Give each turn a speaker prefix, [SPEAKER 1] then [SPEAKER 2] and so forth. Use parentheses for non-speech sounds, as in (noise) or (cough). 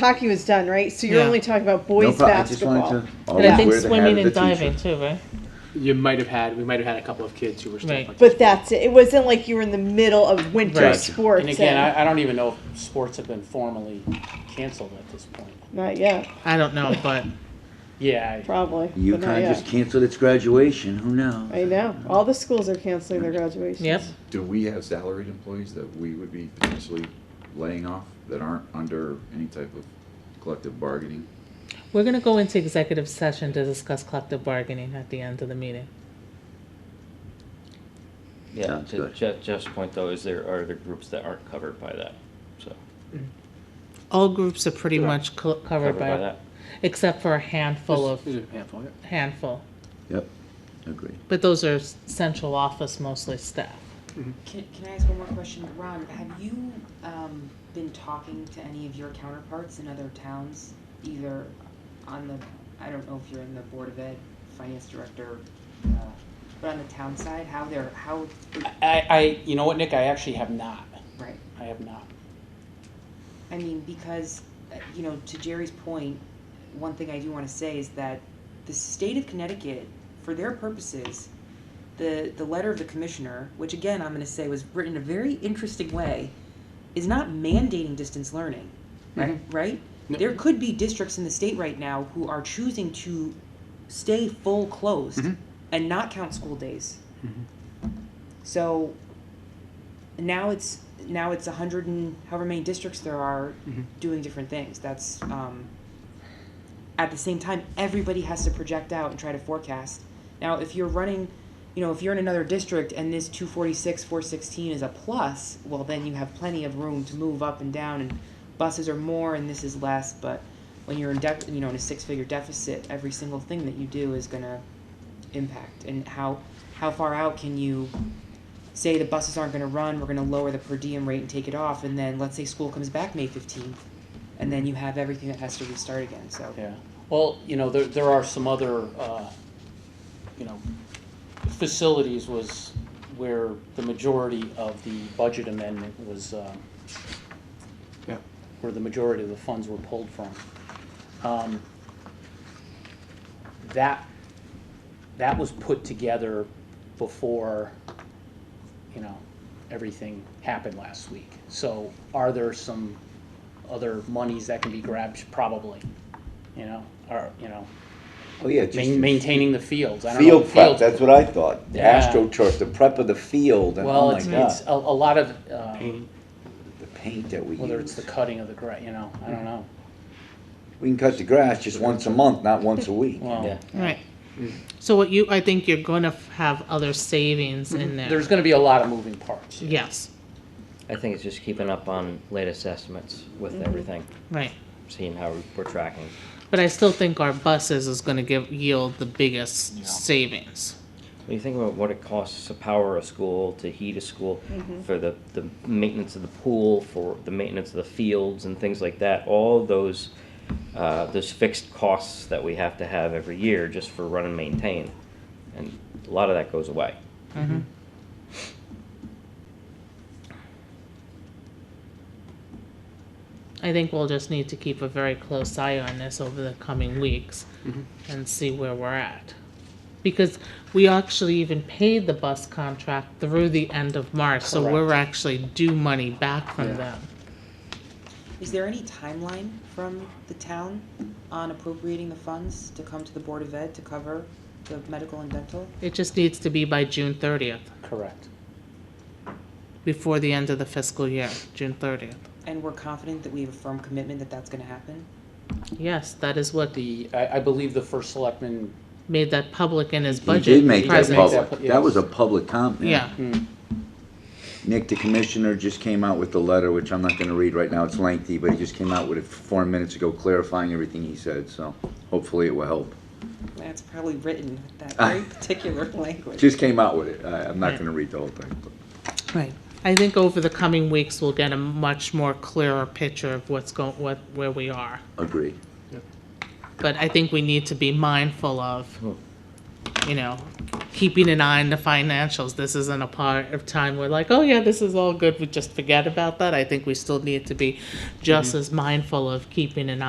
[SPEAKER 1] hockey was done, right? So you're
[SPEAKER 2] Yeah.
[SPEAKER 1] only talking about
[SPEAKER 3] No
[SPEAKER 1] boys
[SPEAKER 3] problem. I just
[SPEAKER 1] basketball.
[SPEAKER 3] wanted to.
[SPEAKER 2] And I
[SPEAKER 3] always
[SPEAKER 2] think
[SPEAKER 3] wear the hat
[SPEAKER 2] swimming and
[SPEAKER 3] of the teacher.
[SPEAKER 2] diving too, right?
[SPEAKER 4] You might have had, we might have had a couple of kids who were stuff
[SPEAKER 2] Right.
[SPEAKER 4] like
[SPEAKER 1] But that's it. It wasn't like you were in the middle of winter
[SPEAKER 3] Right.
[SPEAKER 1] sports.
[SPEAKER 4] And again, I, I don't even know if sports have been formally canceled at this point.
[SPEAKER 1] not yet,
[SPEAKER 2] I don't know, but
[SPEAKER 4] Yeah, I-
[SPEAKER 1] probably. but not
[SPEAKER 3] UConn
[SPEAKER 1] yet.
[SPEAKER 3] just canceled its graduation. Who knows?
[SPEAKER 1] I know. All the schools are canceling their graduations.
[SPEAKER 2] (laughs) yep.
[SPEAKER 5] Do we have salaried employees that we would be potentially laying off that aren't under any type of collective bargaining?
[SPEAKER 2] We're gonna go into executive session to discuss collective bargaining at the end of the meeting.
[SPEAKER 6] Yeah,
[SPEAKER 3] Sounds
[SPEAKER 6] to
[SPEAKER 3] good.
[SPEAKER 6] Je- Jeff's point though is there are the groups that aren't covered by that, so.
[SPEAKER 2] All groups are pretty much co- covered by,
[SPEAKER 6] that.
[SPEAKER 2] except for a handful of,
[SPEAKER 4] There's a handful, yeah.
[SPEAKER 2] handful.
[SPEAKER 3] Yep. Agreed.
[SPEAKER 2] But those are s- central office mostly staff.
[SPEAKER 7] Can, can I ask one more question? Ron, have you um, been talking to any of your counterparts in other towns, either on the, I don't know if you're in the Board of Ed, Finance Director, uh, but on the town side, how they're, how,
[SPEAKER 4] I, I, you know what, Nick, I actually have not.
[SPEAKER 7] right?
[SPEAKER 4] I have not.
[SPEAKER 7] I mean, because, uh, you know, to Jerry's point, one thing I do want to say is that the state of Connecticut, for their purposes, the, the letter of the commissioner, which again, I'm going to say was written in a very interesting way, is not mandating distance learning, right? Right?
[SPEAKER 4] No.
[SPEAKER 7] There could be districts in the state right now who are choosing to stay full closed and not count school days. So now it's now it's a hundred and however many districts there are doing different things. That's um, at the same time everybody has to project out and try to forecast. Now, if you're running, you know, if you're in another district and this 246, 416 is a plus, well, then you have plenty of room to move up and down, and buses are more and this is less. But when you're in, def- you know, in a six-figure deficit, every single thing that you do is gonna impact. And how how far out can you say the buses aren't going to run, we're going to lower the per diem rate and take it off, and then let's say school comes back May 15th, and then you have everything that has to restart again. So
[SPEAKER 4] Yeah, well, you know, there, there are some other, uh, you know, facilities was where the majority of the budget amendment was, um,
[SPEAKER 5] Yeah.
[SPEAKER 4] where the majority of the funds were pulled from. Um, That, that was put together before, you know, everything happened last week. So are there some other monies that can be grabbed? Probably, you know, or, you know,
[SPEAKER 3] Oh yeah,
[SPEAKER 4] ma- maintaining the fields. I don't know,
[SPEAKER 3] field
[SPEAKER 4] the
[SPEAKER 3] prep.
[SPEAKER 4] fields-
[SPEAKER 3] That's what I thought.
[SPEAKER 4] Yeah.
[SPEAKER 3] AstroTurf, the prep of the field, and oh
[SPEAKER 4] Well,
[SPEAKER 3] my
[SPEAKER 4] it's,
[SPEAKER 3] god,
[SPEAKER 4] it's a, a lot of, um,
[SPEAKER 3] the paint that we
[SPEAKER 4] whether it's
[SPEAKER 3] use.
[SPEAKER 4] the cutting of the gra, you know, I don't know.
[SPEAKER 3] we can cut the grass just once a month, not once a week.
[SPEAKER 4] Well,
[SPEAKER 2] Right. So what you, I think you're gonna f- have other savings in there.
[SPEAKER 4] there's gonna be a lot of moving parts.
[SPEAKER 2] Yes,
[SPEAKER 6] I think it's just keeping up on latest estimates
[SPEAKER 2] Mm-hmm.
[SPEAKER 6] with everything,
[SPEAKER 2] right.
[SPEAKER 6] seeing how we're tracking.
[SPEAKER 2] But I still think our buses is gonna give, yield the biggest savings.
[SPEAKER 6] When you think about what it costs to power a school, to heat a school,
[SPEAKER 2] Mm-hmm.
[SPEAKER 6] for the, the maintenance of the pool, for the maintenance of the fields and things like that, all those, uh, those fixed costs that we have to have every year just for run and maintain. And a lot of that goes away.
[SPEAKER 2] I think we'll just need to keep a very close eye on this over the coming weeks
[SPEAKER 3] Mm-hmm.
[SPEAKER 2] and see where we're at. Because we actually even paid the bus contract through the end of March, so we're actually due money back from them.
[SPEAKER 7] is there any timeline from the town on appropriating the funds to come to the Board of Ed to cover the medical and dental?
[SPEAKER 2] It just needs to be by June thirtieth,
[SPEAKER 4] Correct.
[SPEAKER 2] before the end of the fiscal year, June thirtieth.
[SPEAKER 7] And we're confident that we have a firm commitment that that's going to happen?
[SPEAKER 2] Yes, that is what
[SPEAKER 4] The, I, I believe the first selectman,
[SPEAKER 2] made that public in his
[SPEAKER 3] He
[SPEAKER 2] budget.
[SPEAKER 3] did make that
[SPEAKER 2] presence.
[SPEAKER 3] public.
[SPEAKER 4] Yes.
[SPEAKER 3] That was a public comment.
[SPEAKER 2] Yeah,
[SPEAKER 3] Nick, the commissioner, just came out with the letter, which I'm not gonna read right now, it's lengthy, but he just came out with it four minutes ago clarifying everything he said, so hopefully it will help.
[SPEAKER 7] That's probably written with that very particular (laughs) language.
[SPEAKER 3] Just came out with it, I, I'm not gonna read the whole thing. but-
[SPEAKER 2] right. I think over the coming weeks, we'll get a much more clearer picture of what's going, what, where we are.
[SPEAKER 3] Agreed.
[SPEAKER 2] But I think we need to be mindful of you know, keeping an eye on the financials. This isn't a part of time we're like, oh yeah, this is all good. We just forget about that. I think we still need to be just as mindful of keeping an eye.